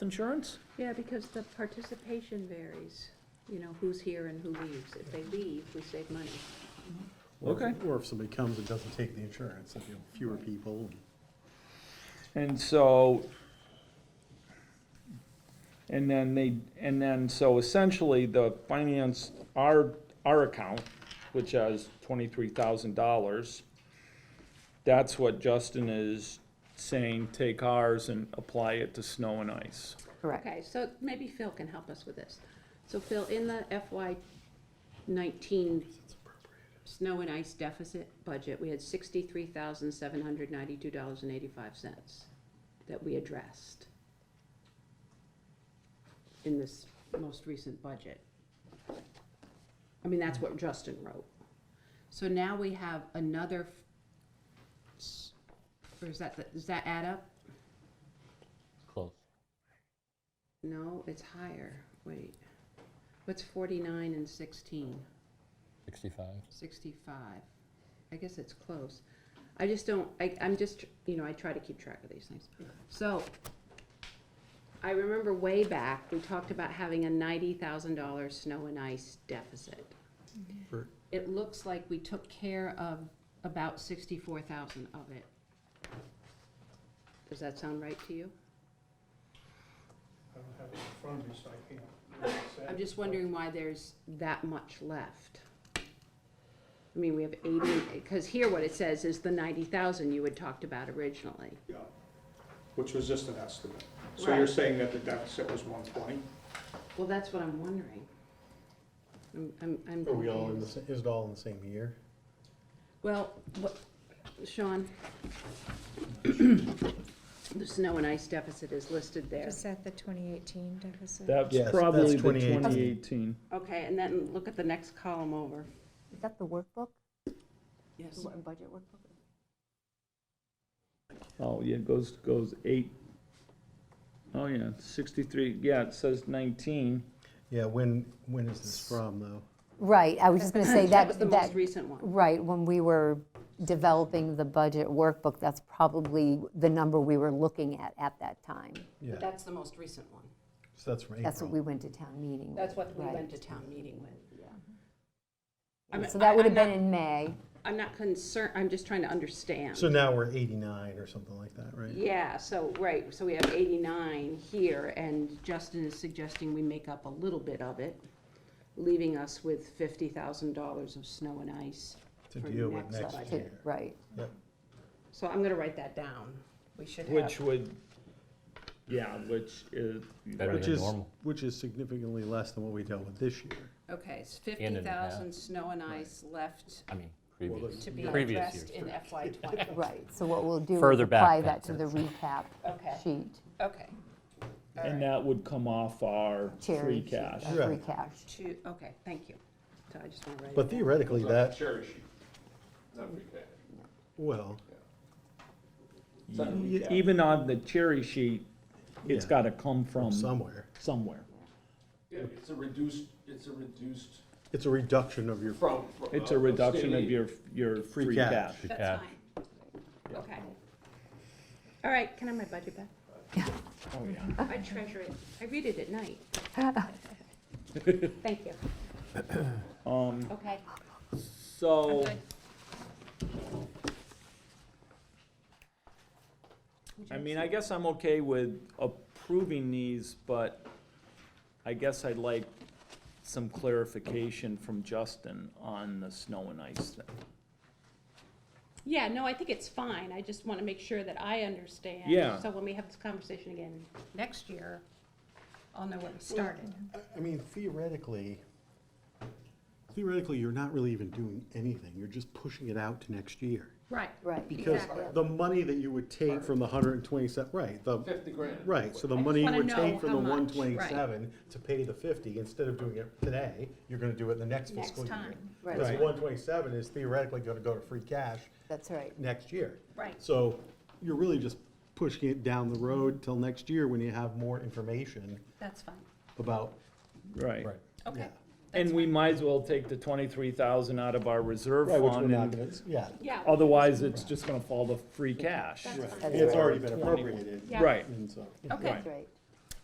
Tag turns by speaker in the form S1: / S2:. S1: insurance?
S2: Yeah, because the participation varies, you know, who's here and who leaves. If they leave, we save money.
S1: Okay.
S3: Or if somebody comes and doesn't take the insurance, if you have fewer people.
S1: And so, and then they, and then, so essentially, the finance, our, our account, which has twenty-three thousand dollars, that's what Justin is saying, take ours and apply it to snow and ice.
S4: Correct.
S2: Okay, so maybe Phil can help us with this. So Phil, in the FY nineteen snow and ice deficit budget, we had sixty-three thousand seven hundred ninety-two dollars and eighty-five cents that we addressed in this most recent budget. I mean, that's what Justin wrote. So now we have another, f- s- or is that, the- does that add up?
S5: Close.
S2: No, it's higher. Wait. What's 49 and 16?
S5: 65.
S2: 65. I guess it's close. I just don't, I, I'm just, you know, I try to keep track of these things. So I remember way back, we talked about having a $90,000 snow and ice deficit.
S3: For-
S2: It looks like we took care of about 64,000 of it. Does that sound right to you?
S6: I don't have it in front of me, so I can't. say.
S2: I'm just wondering why there's that much left. I mean, we have eighty, because here what it says is the ninety thousand you had talked about originally.
S6: Yeah, Which was just an estimate. So you're
S2: Right.
S6: saying that the deficit was one twenty?
S2: Well, that's what I'm wondering. I'm, I'm, I'm
S3: Are we all in the,
S2: confused.
S3: sa- is it all in the same year?
S2: Well, what, Sean? The snow and ice deficit is listed there.
S7: Is that the 2018 deficit?
S1: That's
S3: Yes, that's
S1: probably the
S3: 2018.
S1: twenty eighteen.
S2: Okay, and then look at the next column over.
S4: Is that the workbook,
S2: Yes.
S4: The wo- budget workbook?
S1: Oh, yeah, it goes, goes eight. Oh, yeah, sixty-three, yeah, it says nineteen.
S3: Yeah, when, when is this from, though?
S4: Right, I was just going to say
S2: That was
S4: that,
S2: the
S4: that,
S2: most recent one.
S4: right, when we were developing the budget workbook, that's probably the number we were looking at at that time.
S3: Yeah,
S2: That's the most recent one.
S3: so that's from April.
S4: That's what we went to town meeting with.
S2: That's what we
S4: right.
S2: went to town meeting with. I
S4: And
S2: mean,
S4: So
S2: I-
S4: that would have
S2: I'm not-
S4: been in May.
S2: I'm not concerned, I'm just trying to understand.
S3: So now we're eighty-nine or something like that, right?
S2: Yeah, so, right, so we have 89 here, and Justin is suggesting we make up a little bit of it, leaving us with $50,000 of snow and ice.
S3: To
S2: for
S3: deal with next
S2: budget.
S4: to-
S3: year.
S4: Right.
S3: Yep.
S2: So I'm gonna write that down. We should have.
S1: Which would, yeah, which is,
S5: Better
S3: Which
S5: than
S3: is,
S5: normal.
S3: which is significantly less than what we dealt with this year.
S2: Okay, it's
S5: And in half.
S2: 50,000 snow and ice left
S5: I mean, previous.
S2: to be
S5: Previous
S2: addressed
S5: years,
S2: in FY '20.
S4: Right, so what we'll do is
S5: Further back
S4: apply
S5: then.
S4: that to the recap
S2: Okay,
S4: sheet,
S2: okay. All
S1: and
S2: right.
S1: that would come off our free
S4: cherry sheet,
S1: cash.
S4: uh, free
S3: Right.
S4: cash.
S2: Two, okay, thank you. So I just wanna write it
S3: But
S2: down.
S3: theoretically, that,
S8: Cherry sheet, not free cash.
S3: well,
S1: E- Even on the cherry sheet, it's
S3: Yeah.
S1: gotta come from
S3: from somewhere.
S1: somewhere.
S8: Yeah, it's a reduced, it's a reduced
S3: It's a reduction of your,
S8: from. from,
S1: It's
S8: uh,
S1: a reduction of
S8: state aid.
S1: your, your
S3: Free
S1: free cash.
S3: cash.
S5: Yeah.
S2: That's fine. Okay. All right, can I have my budget back?
S1: Oh, yeah.
S2: I treasure it. I read it at night. Thank you.
S1: Um,
S2: Okay.
S1: so, I mean, I guess I'm okay with approving these, but I guess I'd like some clarification from Justin on the snow and ice thing.
S2: Yeah, no, I think it's fine. I just want to make sure that I understand.
S1: Yeah.
S2: So when we have this conversation again next year, I'll know where we started.
S3: I- I mean, theoretically, theoretically, you're not really even doing anything. You're just pushing it out to next year.
S2: Right.
S4: Right.
S3: Because
S2: Exactly.
S3: the money that you would take from the hundred and twenty-seven, right, the,
S8: Fifty grand.
S3: right, so the
S2: I just
S3: money you
S2: wanna
S3: would
S2: know
S3: take
S2: how
S3: from the
S2: much, right.
S3: one twenty-seven to pay the fifty, instead of doing it today, you're gonna do it the next
S2: Next
S3: fiscal year.
S2: time.
S4: Right.
S3: Because one twenty-seven is theoretically gonna go to free cash
S4: That's right.
S3: next year.
S2: Right.
S3: So you're really just pushing it down the road till next year when you have more information
S2: That's fine.
S3: about.
S1: Right.
S2: Okay.
S3: Yeah.
S1: And we might as well take the twenty-three thousand out of our reserve
S3: Right, which we're
S1: fund,
S3: not
S1: and
S3: gonna, yeah.
S2: Yeah.
S1: otherwise it's just gonna fall to free cash.
S3: It's already been appropriated,
S2: Yeah.
S1: Right,
S3: and so.
S2: Okay.
S4: That's right.